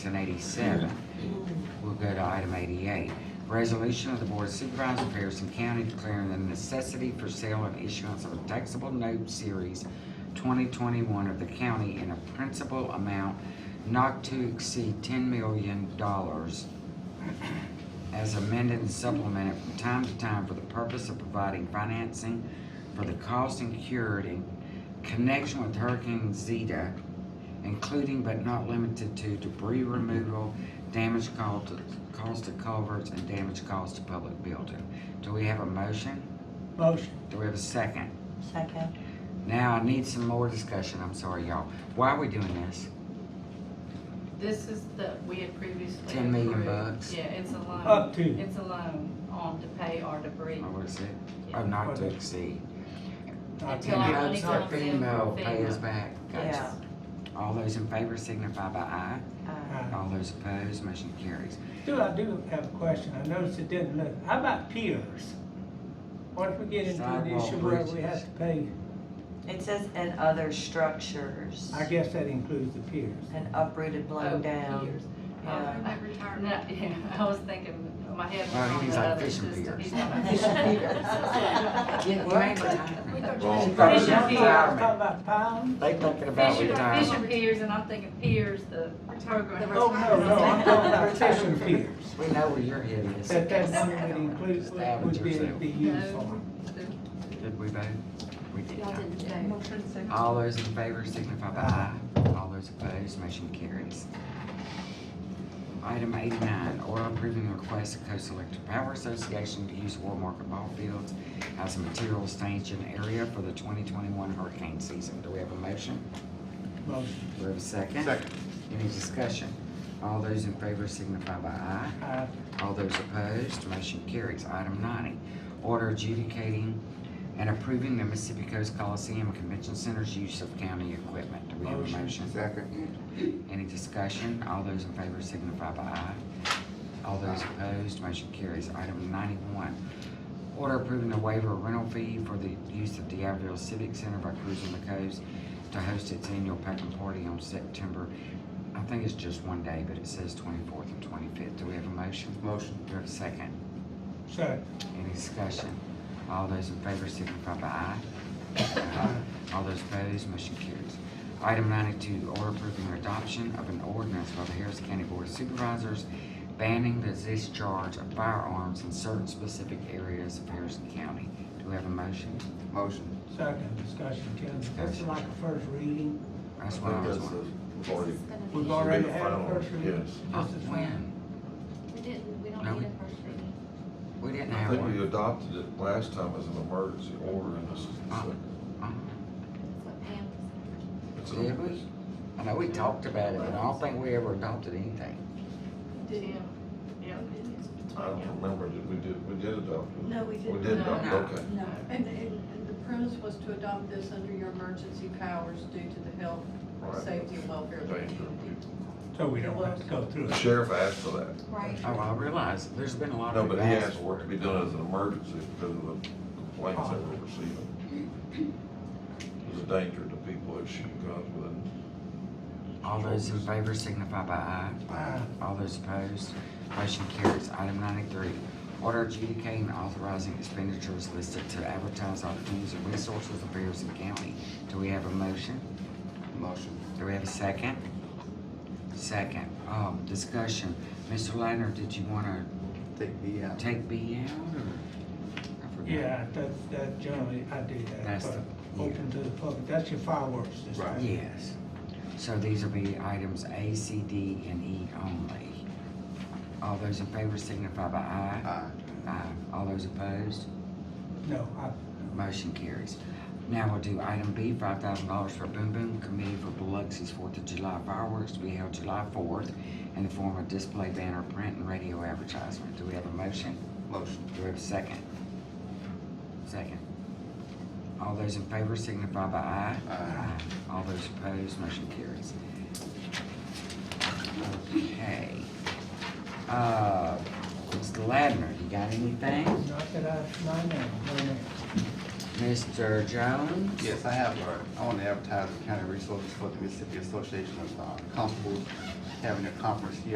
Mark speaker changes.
Speaker 1: and eighty-seven. We'll go to item eighty-eight. Resolution of the Board of Supervisors of Harrison County declaring the necessity for sale and issuance of a taxable note series twenty twenty-one of the county in a principal amount not to exceed ten million dollars as amended and supplemented from time to time for the purpose of providing financing for the cost incurred in connection with Hurricane Zeta, including but not limited to debris removal, damage caused to, caused to culverts, and damage caused to public building. Do we have a motion?
Speaker 2: Motion.
Speaker 1: Do we have a second?
Speaker 3: Second.
Speaker 1: Now, I need some more discussion, I'm sorry, y'all. Why are we doing this?
Speaker 4: This is the, we had previously.
Speaker 1: 10 million
Speaker 4: approved-
Speaker 1: bucks.
Speaker 4: Yeah, it's a loan.
Speaker 2: Up to.
Speaker 4: It's a loan on to pay our debris.
Speaker 1: Or what is it? Oh,
Speaker 4: Yeah.
Speaker 1: not to exceed.
Speaker 4: Till
Speaker 1: In
Speaker 4: our money
Speaker 1: hopes that
Speaker 4: comes in from
Speaker 1: FEMA will pay
Speaker 4: FEMA.
Speaker 1: us back. Gotcha. All those in favor signify by aye.
Speaker 3: Uh,
Speaker 2: Uh,
Speaker 1: All those opposed, motion carries.
Speaker 2: Stu, I do have a question. I noticed it didn't look, how about piers? Once we get into an
Speaker 1: Sidewalk
Speaker 2: issue where we
Speaker 1: bridges.
Speaker 2: have to pay,
Speaker 3: It says and other structures.
Speaker 2: I guess that includes the piers.
Speaker 3: And uprooted, blown down.
Speaker 4: Oh, Years. Um,
Speaker 3: Yeah.
Speaker 4: no, yeah, I was thinking, my head was
Speaker 1: Well,
Speaker 4: on
Speaker 1: he's
Speaker 4: the
Speaker 1: like
Speaker 4: other
Speaker 1: fishing
Speaker 4: system.
Speaker 1: piers.
Speaker 4: He's talking about
Speaker 3: Fishing
Speaker 4: fishing piers.
Speaker 1: Get retired.
Speaker 5: Well,
Speaker 1: She's
Speaker 2: I was
Speaker 1: probably
Speaker 4: Fishing
Speaker 2: talking
Speaker 4: piers.
Speaker 1: retirement.
Speaker 2: about pounds.
Speaker 1: They thinking about
Speaker 4: Fishing,
Speaker 1: retirement.
Speaker 4: fishing piers, and I'm thinking piers, the. program.
Speaker 2: Oh, no, no, I'm talking about fishing piers.
Speaker 1: We know where your head is.
Speaker 2: That that money would include,
Speaker 1: Stab it
Speaker 2: would be,
Speaker 1: yourself.
Speaker 2: be used for.
Speaker 1: Did we vote? We did
Speaker 6: Y'all
Speaker 1: not.
Speaker 6: didn't vote.
Speaker 1: All those in favor signify by aye.
Speaker 2: Aye.
Speaker 1: All those opposed, motion carries. Item eighty-nine, order approving the request of Coastal Electric Power Association to use War Market Ball Fields as a material staging area for the twenty twenty-one hurricane season. Do we have a motion?
Speaker 2: Motion.
Speaker 1: Do we have a second?
Speaker 5: Second.
Speaker 1: Any discussion? All those in favor signify by aye.
Speaker 2: Uh,
Speaker 1: All those opposed, motion carries. Item ninety, order adjudicating and approving the Mississippi Coast Coliseum and Convention Center's use of county equipment. Do we have a
Speaker 2: Motion.
Speaker 1: motion?
Speaker 5: Second.
Speaker 1: Any discussion? All those in favor signify by aye. All those opposed, motion carries. Item ninety-one, order approving the waiver of rental fee for the use of the Abbeville Civic Center by Cruising the Coast to host its annual packing party on September, I think it's just one day, but it says twenty-fourth and twenty-fifth. Do we have a motion?
Speaker 5: Motion.
Speaker 1: Do we have a second?
Speaker 2: Second.
Speaker 1: Any discussion? All those in favor signify by aye. All those opposed, motion carries. Item ninety-two, order approving the adoption of an ordinance by the Harris County Board of Supervisors banning the discharge of firearms in certain specific areas of Harrison County. Do we have a motion?
Speaker 5: Motion.
Speaker 2: Second discussion, Ken. That's like a first reading.
Speaker 1: That's what I was wondering.
Speaker 5: already.
Speaker 2: We've already had a first reading.
Speaker 5: Yes.
Speaker 1: Oh,
Speaker 2: This is one.
Speaker 1: When?
Speaker 6: We didn't, we
Speaker 1: No,
Speaker 6: don't
Speaker 1: we-
Speaker 6: need a first reading.
Speaker 1: We didn't
Speaker 5: I
Speaker 1: have
Speaker 5: think we
Speaker 1: one.
Speaker 5: adopted it last time as an emergency order and this is the second.
Speaker 1: Oh,
Speaker 6: That's what Pam
Speaker 5: It's
Speaker 1: Did
Speaker 5: an-
Speaker 1: we? I know we talked about it, but I don't think we ever adopted anything.
Speaker 4: Yeah, yeah, it's
Speaker 5: I
Speaker 4: between you.
Speaker 5: don't remember, did we did, we did adopt it?
Speaker 7: No, we
Speaker 5: We
Speaker 7: didn't.
Speaker 5: did adopt,
Speaker 1: No.
Speaker 5: okay.
Speaker 7: No, and, and and the premise was to adopt this under your emergency powers due to the health,
Speaker 5: Right.
Speaker 7: safety, and welfare of the
Speaker 5: Thank
Speaker 7: community.
Speaker 5: you.
Speaker 2: So we don't have to go through
Speaker 5: The
Speaker 2: it.
Speaker 5: sheriff asked for that.
Speaker 6: Right.
Speaker 1: Oh, I realize, there's been a lot
Speaker 5: No,
Speaker 1: of.
Speaker 5: but he
Speaker 1: requests
Speaker 5: asked for it to be done as an emergency because of the complaints they were receiving. It was a danger to people who shoot guns with
Speaker 1: All those in favor signify by aye.
Speaker 2: Aye.
Speaker 1: All those opposed, motion carries. Item ninety-three, order adjudicating and authorizing expenditures listed to advertise opportunities and resources of Harrison County. Do we have a motion?
Speaker 5: it. Motion.
Speaker 1: Do we have a second? Second, um, discussion. Mr. Ladner, did you wanna
Speaker 5: Take me out.
Speaker 1: take B out or? I forgot.
Speaker 2: Yeah, that's, that generally, I do that,
Speaker 1: That's
Speaker 2: but
Speaker 1: the-
Speaker 2: open to the public, that's your fireworks display.
Speaker 5: Right.
Speaker 1: Yes. So these will be items A, C, D, and E only. All those in favor signify by aye.
Speaker 8: Uh,
Speaker 1: Aye. All those opposed?
Speaker 2: No, I,
Speaker 1: Motion carries. Now we'll do item B, five thousand dollars for Boom Boom Committee for Biloxi's Fourth of July fireworks to be held July fourth in the form of display banner, print, and radio advertisement. Do we have a motion?
Speaker 5: Motion.
Speaker 1: Do we have a second? Second. All those in favor signify by aye. Aye. All those opposed, motion carries. Okay. Uh, Mr. Ladner, you got anything?
Speaker 2: not that I, my name, no name.
Speaker 1: Mr. Jones?
Speaker 8: Yes, I have, uh, I want to advertise the county resources for the Mississippi Association of uh, Constables haven't accomplished yet.